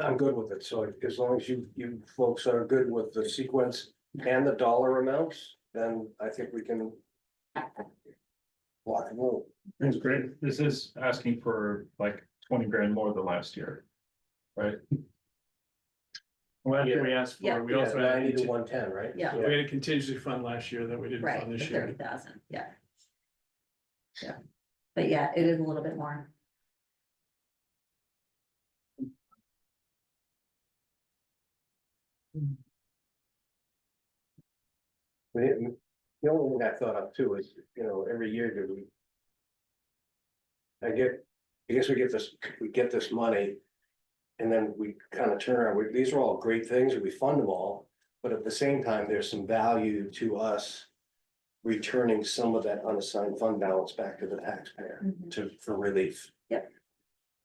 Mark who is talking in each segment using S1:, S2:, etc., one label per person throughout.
S1: I'm good with it, so as long as you, you folks are good with the sequence and the dollar amounts, then I think we can. Lock and roll.
S2: That's great. This is asking for like twenty grand more than last year. Right? Well, after we asked
S3: Yeah.
S2: for, we also had,
S1: Ninety
S2: a
S1: to
S2: conti-
S1: one ten, right?
S3: Yeah.
S2: we had a contingency fund last year that we didn't
S3: Right,
S2: fund
S3: the
S2: this
S3: thirty
S2: year.
S3: thousand, yeah. Yeah, but yeah, it is a little bit more.
S1: The the only thing I thought of too is, you know, every year do we. I get, I guess we get this, we get this money. And then we kind of turn around, we- these are all great things, and we fund them all, but at the same time, there's some value to us. Returning some of that unassigned fund balance back to the taxpayer
S2: Mm-hmm.
S1: to, for relief.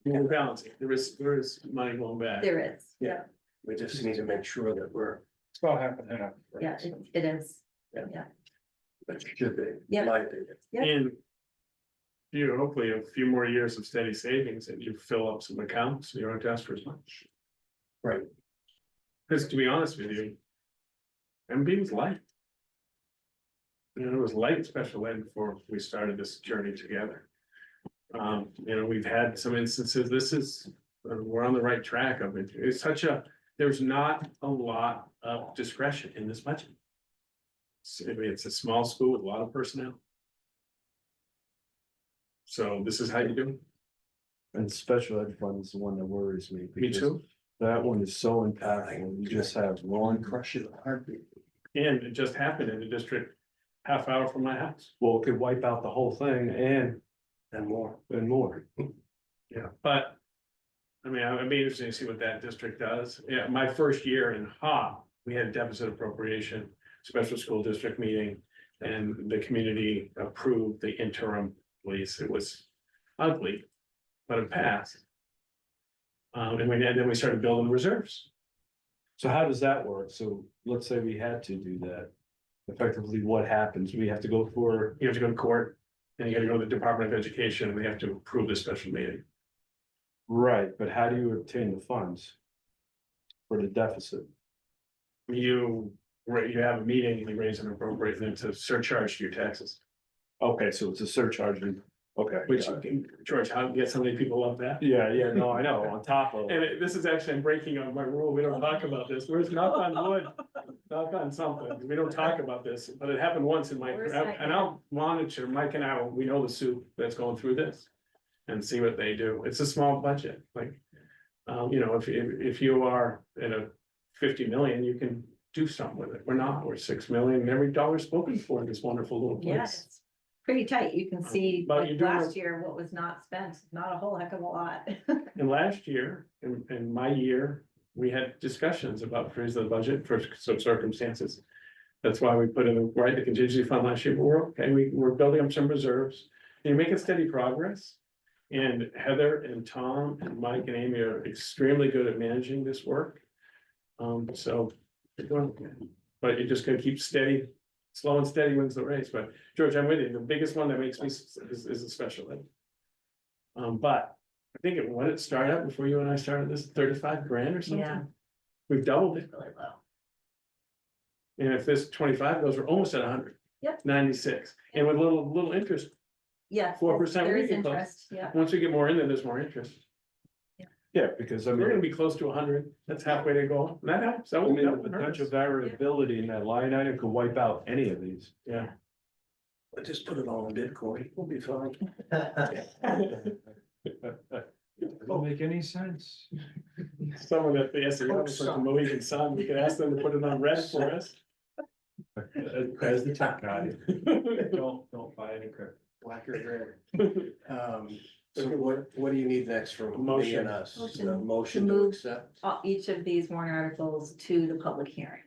S2: We're balancing. There is, there is money going back.
S3: There is,
S1: Yeah. We just need to make sure that we're,
S2: It's about half and half. right?
S3: yeah, it- it is,
S1: that should be,
S3: Yeah.
S1: in my opinion.
S3: Yeah.
S2: And. You, hopefully a few more years of steady savings and you fill up some accounts, you don't ask for as much.
S1: Right.
S2: Cause to be honest with you. MB was light. You know, it was light special ed before we started this journey together. Um, you know, we've had some instances, this is, we're on the right track of it, it's such a, there's not a lot of discretion in this budget. So, I mean, it's a small school with a lot of personnel. So this is how you do
S4: And special ed fund is the one that worries me.
S2: it, me
S4: because
S2: too,
S4: That one is so impactful. You just have one crush it heartbeat.
S2: and it just happened in the district half hour from my house.
S4: Well, it could wipe out the whole thing and,
S1: And more.
S4: and more.
S2: Yeah. But. I mean, I'd be interested to see what that district does, yeah, my first year in HOP, we had deficit appropriation, special school district meeting. And the community approved the interim lease, it was ugly, but it passed. Um, and we, and then we started building reserves.
S4: So how does that work? So let's say we had to do that. Effectively, what happens? We have to go for,
S2: you have to go to court, and you gotta go to the Department of Education, and they have to approve this special meeting.
S4: right, but how do you obtain the funds? For the deficit?
S2: You, ra- you have a meeting, you raise and appropriate, and it's a surcharge to your taxes,
S4: Okay, so it's a surcharge. and- Okay.
S2: which, George, how, yeah, so many people love that.
S4: Yeah, yeah, no, I know, on top
S3: Oh.
S4: of.
S2: And it- this is actually, I'm breaking on my rule, we don't talk about this, where's knock on wood, knock on something, we don't talk about this, but it happened once in my,
S3: Where's that?
S2: and I'll monitor, Mike and I, we know the soup that's going through this. And see what they do, it's a small budget, like, um, you know, if, if, if you are at a fifty million, you can do something with it, we're not, we're six million, and every dollar spoken for in this wonderful little
S3: yeah,
S2: place.
S3: it's pretty tight, you can see
S2: Uh, But
S3: like
S2: you're doing
S3: last
S2: a-
S3: year what was not spent, not a whole heck of a lot.
S2: And last year, in, in my year, we had discussions about freezing the budget for some circumstances. That's why we put in, right, the contingency fund last year, but we're, okay. we, we're building up some reserves, and you're making steady progress. And Heather and Tom and Mike and Amy are extremely good at managing this work. Um, so, we're doing okay. but you're just gonna keep steady, slow and steady wins the race, but George, I'm with you, the biggest one that makes me s- is, is a special ed. Um, but I think it, what it started out before you and I started this, thirty-five grand or
S3: Yeah.
S2: something? We've doubled it,
S3: It's really low.
S2: and if this twenty-five goes, we're almost at hundred.
S3: Yep.
S2: Ninety-six, and with little, little interest,
S3: Yeah.
S2: 4%
S3: There
S2: we
S3: is
S2: get close.
S3: interest, yeah.
S2: once we get more in there, there's more interest.
S4: Yeah, because I mean.
S2: We're gonna be close to hundred, that's halfway to go, and that helps, that
S4: I
S2: will
S4: mean,
S2: that
S4: the
S2: would
S4: potential
S2: hurt.
S4: variability in that line item could wipe out any of these.
S2: Yeah,
S1: But just put it all in Bitcoin, we'll be fine.
S4: Don't make any sense.
S2: someone at the S A O,
S1: Hope
S2: for
S1: so.
S2: the Mohegan Sun, we could ask them to put it on red for us.
S4: As the tech guy, don't, don't buy any credit.
S1: Black or gray. Um, so what, what do you need next from me
S2: Motion.
S1: and us?
S3: Motion.
S1: The motion to
S3: Move.
S1: accept?
S3: Uh, each of these warrant articles to the public hearing,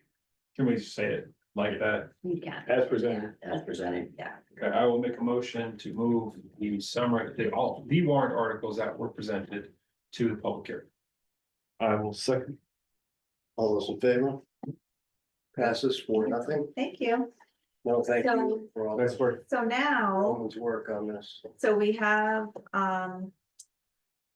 S5: Can we say it like that?
S3: you can. Yeah,
S2: As presented,
S3: As presented, yeah.
S5: Okay, I will make a motion to move the summary, the all, the warrant articles that were presented to the public hearing.
S4: I will second.
S1: All those in favor? Passes for nothing?
S3: Thank you.
S1: No, thank you
S3: So-
S1: for all
S4: Nice
S1: this
S4: work.
S3: So now.
S2: Oh.
S1: woman's work on this.
S3: So we have, um,